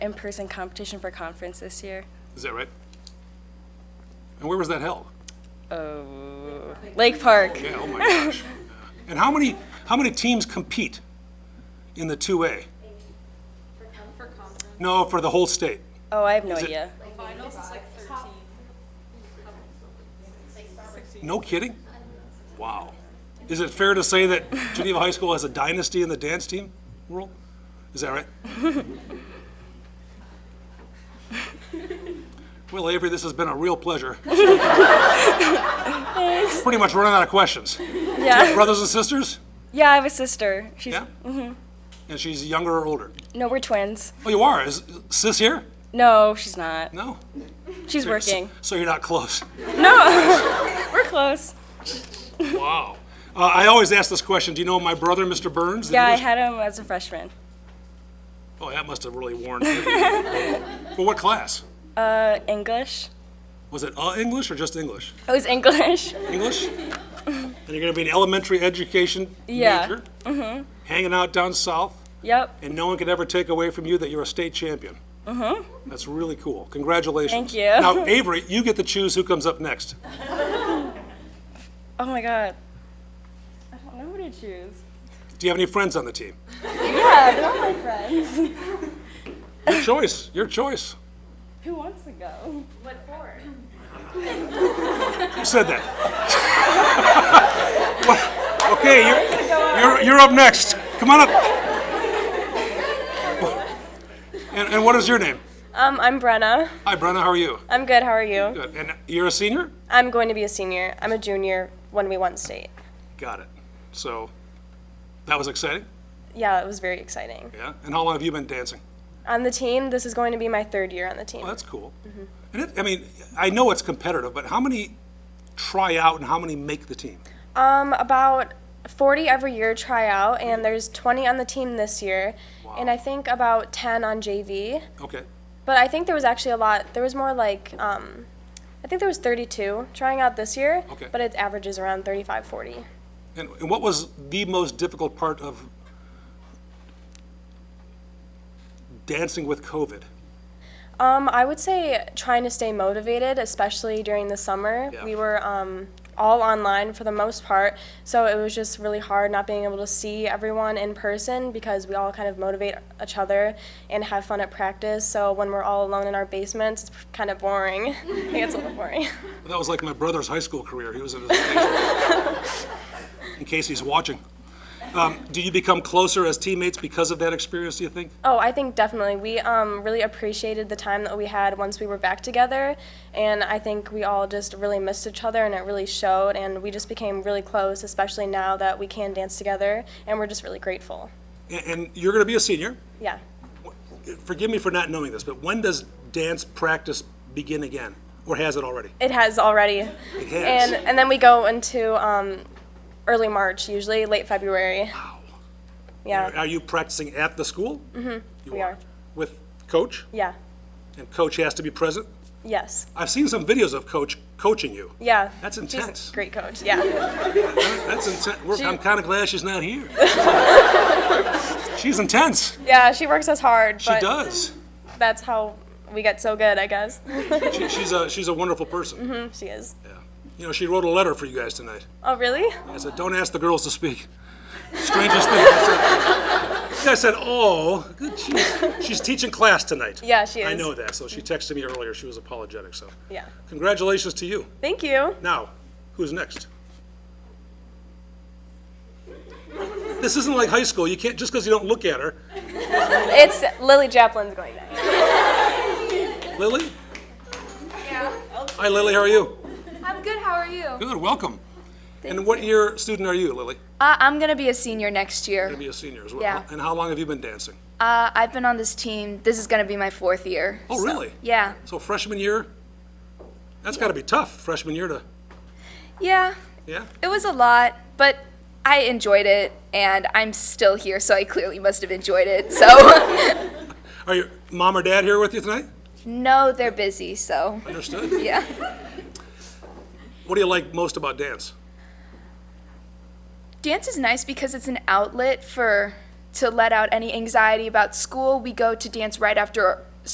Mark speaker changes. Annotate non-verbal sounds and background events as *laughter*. Speaker 1: in-person competition for conference this year.
Speaker 2: Is that right? And where was that held?
Speaker 1: Oh, Lake Park.
Speaker 2: Yeah, oh my gosh. And how many, how many teams compete in the 2A?
Speaker 3: For conference,
Speaker 2: No, for the whole state?
Speaker 1: Oh, I have no
Speaker 2: it-
Speaker 1: idea.
Speaker 3: finals is like thirteen.
Speaker 2: No kidding? Wow. Is it fair to say that Geneva High School has a dynasty in the dance team world? Is that right? Well, Avery, this has been a real pleasure. Pretty much running out of questions.
Speaker 1: Yeah.
Speaker 2: Brothers and sisters?
Speaker 1: *laughs* Yeah, I have a sister. She's
Speaker 2: Yeah?
Speaker 1: Mm-hmm.
Speaker 2: And she's younger or older?
Speaker 1: no, we're twins.
Speaker 2: Oh, you are? Is sis here?
Speaker 1: No, she's not.
Speaker 2: No?
Speaker 1: She's working.
Speaker 2: So you're not close. *laughs*
Speaker 1: *laughs* We're close.
Speaker 2: Wow. Uh, I always ask this question. Do you know my brother, Mr. Burns? the
Speaker 1: Yeah, I
Speaker 2: English-
Speaker 1: had him as a freshman.
Speaker 2: Oh, that must have really worn. *laughs* Well, what class?
Speaker 1: Uh, English.
Speaker 2: Was it uh, English or just English?
Speaker 1: It was English. *laughs*
Speaker 2: English? And you're going to be an elementary education
Speaker 1: Yeah.
Speaker 2: major? Mm-hmm. Hanging out down south,
Speaker 1: Yep.
Speaker 2: and no one could ever take away from you that you're a state champion. Mm-hmm. That's really cool. Congratulations.
Speaker 1: Thank you. *laughs*
Speaker 2: Now, Avery, you get to choose who comes up next.
Speaker 1: Oh my god. I don't know who to choose.
Speaker 2: Do you have any friends on the team?
Speaker 1: Yeah, they're all my friends.
Speaker 2: Your choice. Your choice.
Speaker 1: Who wants to go?
Speaker 3: What for?
Speaker 2: Who said that? *laughs* What? Okay, you're, you're, you're up next. Come on up. And, and what is your name?
Speaker 1: Um, I'm Brenna.
Speaker 2: Hi, Brenna, how are you?
Speaker 1: I'm good. How are you?
Speaker 2: Good. And you're a senior?
Speaker 1: I'm going to be a senior. I'm a junior when we won state.
Speaker 2: Got it. So, that was exciting?
Speaker 1: Yeah, it was very exciting.
Speaker 2: Yeah? And how long have you been dancing?
Speaker 1: On the team, this is going to be my third year on the team.
Speaker 2: Well, Oh, that's cool. And it, I mean, I know it's competitive, but how many try out and how many make the team?
Speaker 1: Um, about 40 every year try out, and there's 20 on the team this year, and I think about 10 on JV.
Speaker 2: Okay.
Speaker 1: But I think there was actually a lot. There was more like, um, I think there was 32 trying out this year,
Speaker 2: Okay.
Speaker 1: but it averages around 35, 40.
Speaker 2: And, and what was the most difficult part of dancing with COVID?
Speaker 1: Um, I would say trying to stay motivated, especially during the summer.
Speaker 2: Yeah.
Speaker 1: We were um, all online for the most part, so it was just really hard not being able to see everyone in person because we all kind of motivate each other and have fun at practice. So when we're all alone in our basements, it's kind of boring. *laughs* it gets a little boring. *laughs*
Speaker 2: That was like my brother's high school career. He was in his.
Speaker 1: *laughs*
Speaker 2: in case he's watching. Um, do you become closer as teammates because of that experience, do you think?
Speaker 1: Oh, I think definitely. We um, really appreciated the time that we had once we were back together, and I think we all just really missed each other, and it really showed, and we just became really close, especially now that we can dance together, and we're just really grateful.
Speaker 2: And, and you're going to be a senior.
Speaker 1: Yeah.
Speaker 2: Forgive me for not knowing this, but when does dance practice begin again? Or has it already?
Speaker 1: It has already.
Speaker 2: It has.
Speaker 1: And, and then we go into um, early March, usually late February. Wow. Yeah,
Speaker 2: Are you practicing at the school? Mm-hmm. You
Speaker 1: we
Speaker 2: are.
Speaker 1: are.
Speaker 2: With coach?
Speaker 1: yeah,
Speaker 2: And coach has to be present?
Speaker 1: yes,
Speaker 2: I've seen some videos of coach coaching you.
Speaker 1: yeah.
Speaker 2: That's
Speaker 1: She's a
Speaker 2: intense.
Speaker 1: great coach, yeah.
Speaker 2: That's intense. We're- I'm kind of glad she's not
Speaker 1: *laughs*
Speaker 2: here. she's intense.
Speaker 1: Yeah, she works us hard,
Speaker 2: She
Speaker 1: but
Speaker 2: does.
Speaker 1: that's how we get so good, I guess. *laughs*
Speaker 2: She, she's a she's a wonderful person.
Speaker 1: she is.
Speaker 2: Yeah. You know, she wrote a letter for you guys tonight.
Speaker 1: Oh, really?
Speaker 2: I said, "Don't ask the girls to speak." Strangest thing. I said, I said, "Oh, good. She's, she's teaching class tonight."
Speaker 1: Yeah, she
Speaker 2: I
Speaker 1: is.
Speaker 2: know that. So she texted me earlier. She was apologetic. So
Speaker 1: Yeah.
Speaker 2: congratulations to you.
Speaker 1: Thank you.
Speaker 2: Now, who's next? This isn't like high school. You can't just because you don't look at her.
Speaker 1: It's Lily Japlin's going next.
Speaker 2: Lily? Hi, Lily, how are you?
Speaker 3: I'm good, how are you?
Speaker 2: Good, welcome. And what year student are you, Lily?
Speaker 4: Uh, I'm gonna be a senior next year.
Speaker 2: Gonna be a senior as well.
Speaker 4: Yeah.
Speaker 2: And how long have you been dancing?
Speaker 4: Uh, I've been on this team. This is gonna be my fourth year.
Speaker 2: Oh,
Speaker 4: so-
Speaker 2: really?
Speaker 4: Yeah.
Speaker 2: So freshman year? That's gotta be tough, freshman year to,
Speaker 4: Yeah.
Speaker 2: yeah?
Speaker 4: It was a lot, but I enjoyed it, and I'm still here, so I clearly must have enjoyed it. So, *laughs*
Speaker 2: Are your mom or dad here with you tonight?
Speaker 4: no, they're busy, so
Speaker 2: Understood.
Speaker 4: yeah.
Speaker 2: What do you like most about dance?
Speaker 4: Dance is nice because it's an outlet for to let out any anxiety about school. We go to dance right after